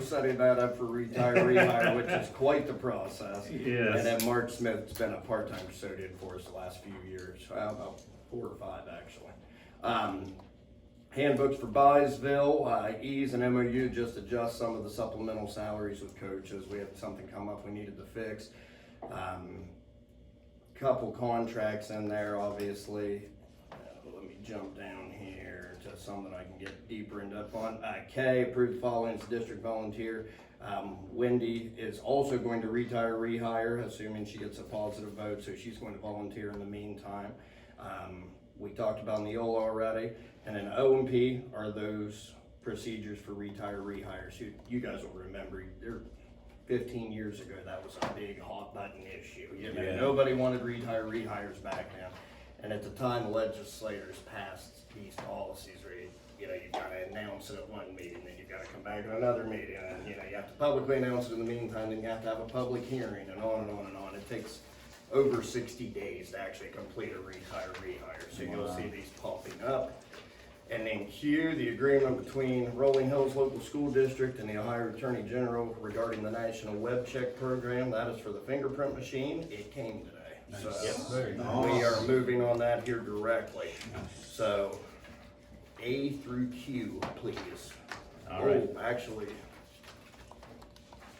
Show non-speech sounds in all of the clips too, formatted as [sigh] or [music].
setting that up for retiree hire, which is quite the process. Yes. And then Mark Smith's been a part-time custodian for us the last few years, uh, about four or five, actually. Um, handbooks for Byesville, uh, E's and MOU, just adjust some of the supplemental salaries with coaches. We had something come up we needed to fix. Um, couple contracts in there, obviously. Uh, Let me jump down here to some that I can get deeper into up on. Uh, K, approved the following as district volunteer. Um, Wendy is also going to retire, rehire, assuming she gets a positive vote, so she's going to volunteer in the meantime. Um, we talked about Neola already, and then OMP are those procedures for retire, rehires. You, you guys will remember, they're fifteen years ago, that was a big hot button issue, you know, Yeah. nobody wanted retire, rehires back then. And at the time legislators passed these policies where you, you know, you gotta announce it at one meeting, then you gotta come back at another meeting, and, you know, you have to publicly announce it in the meantime, then you have to have a public hearing, and on and on and on, it takes over sixty days to actually complete a retire, rehire, so you'll see these popping up. And then Q, the agreement between Rolling Hills Local School District and the Ohio Attorney General regarding the National Web Check Program. That is for the fingerprint machine. It came today. So Very we are moving on that here directly. So A through Q, please. All right. Oh, Actually,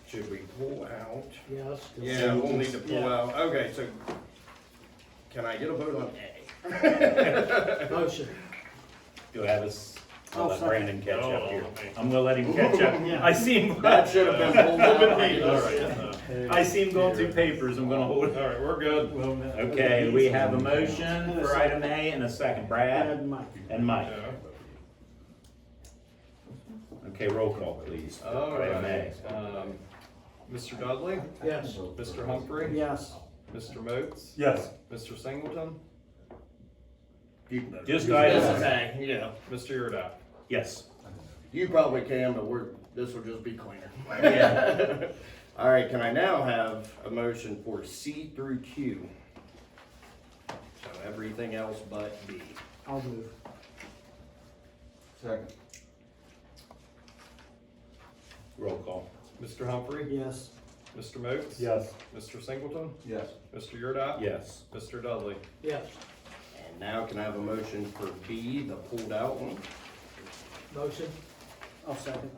should we pull out? Yes. Yeah, we'll need to pull out. Okay, so can I get a vote on A? Motion. Do I have us, uh, I'll I'll let second. Brandon catch Oh, up here. I'm gonna let him catch up. Oh, [laughs] Yeah. I see him. That should have been pulled out. All [laughs] right. I see him going through papers. I'm gonna hold it. Alright, uh, we're good. Well, uh, no. Okay, we have a motion for item A and a second. Add Brad Mike. and Mike. Yeah. Okay, roll call, please. for item A. Alright, um, Mr. Dudley, Yes. Mr. Humphrey, Yes. Mr. Moats, Yes. Mr. Singleton, Just item Yeah, yeah. Mr. Yurdak. Yes. You probably can, but we're, this will just be cleaner. Yeah. [laughs] All right, can I now have a motion for C through Q? So everything else but B. I'll move. Second. Roll call. Mr. Humphrey, Yes. Mr. Moats. Mr. Singleton, Yes. Mr. Yurdak. Yes. Mr. Dudley. Yes. And now can I have a motion for B, the pulled out one? Motion. I'll second.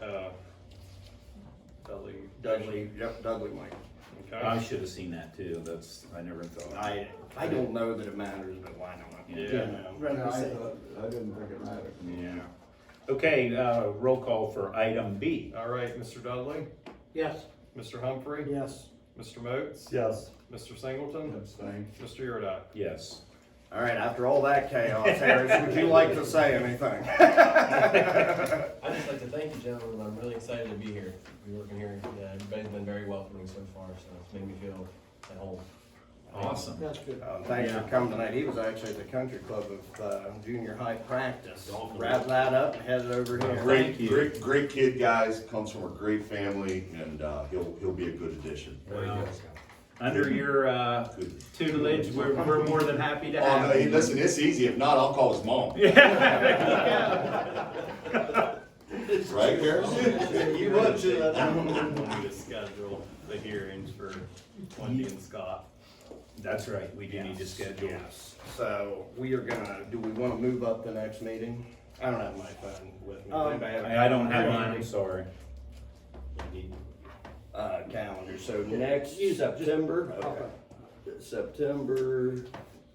Uh, Dudley. Dudley, yep, Dudley Mike. I Okay. should have seen that too. That's, I never thought. I, I don't know that it matters, but why not? Yeah. You know. Right, No, I I say. thought, I didn't think it mattered. Yeah. Okay, uh, roll call for item B. Alright, Mr. Dudley, Yes. Mr. Humphrey, Yes. Mr. Moats, Yes. Mr. Singleton, Abstain. Mr. Yurdak. Yes. All right, after all that chaos, Harris, would you like to say anything? I'd just like to thank you, gentlemen. I'm really excited to be here, be working here. Yeah, everybody's been very welcoming so far, so it's made me feel at home. Awesome. That's good. Um, Thanks for Yeah. coming tonight. He was actually at the country club of uh, junior high practice. Wrap that up and head it over here. Great, Thank you. great, great kid, guys, comes from a great family, and, uh, he'll, he'll be a good addition. Well, Under your, uh, tutelage, we're, we're more than happy to Oh, no, have hey, you. listen, it's easy, if not, I'll call his mom. Right, Harris? [laughs] You would, Chip. When we schedule the hearings for Wendy and Scott. That's right, we do need to schedule. Yes. So we are gonna, do we want to move up the next meeting? I don't have my phone with me. Um, Anybody have- I, I don't have mine, I'm sorry. Uh, calendar. So next September, okay. September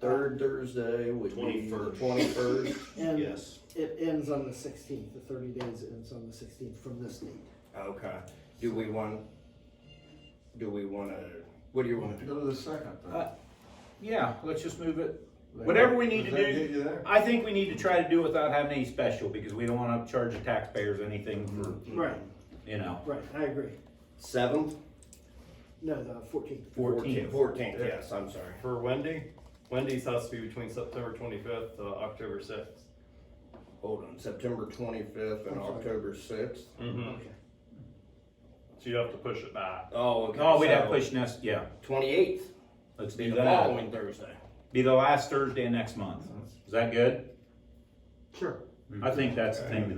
third Thursday would be the 21st. twenty-first. And Yes. it ends on the sixteenth, the thirty days ends on the sixteenth from this date. Okay. Do we want, do we want to, what do you want to do? Go to the second. then. Uh, Yeah, let's just move it. Whatever we need to Does that get do, you there? I think we need to try to do it without having any special, because we don't wanna charge the taxpayers anything for, Right, you know, right, I agree. Seventh? No, the fourteenth. fourteen. Fourteenth, yes, I'm sorry. For Wendy, Wendy's has to be between September twenty-fifth to October sixth. Hold on, September twenty-fifth and I'm sorry. October sixth. Mm-hmm. Okay. So you have to push it back. Oh, okay. Oh, we'd have push next, yeah, Twenty-eighth, let's be do the that. following Thursday. Be the last Thursday of next month. Is that good? Sure. I think that's the thing to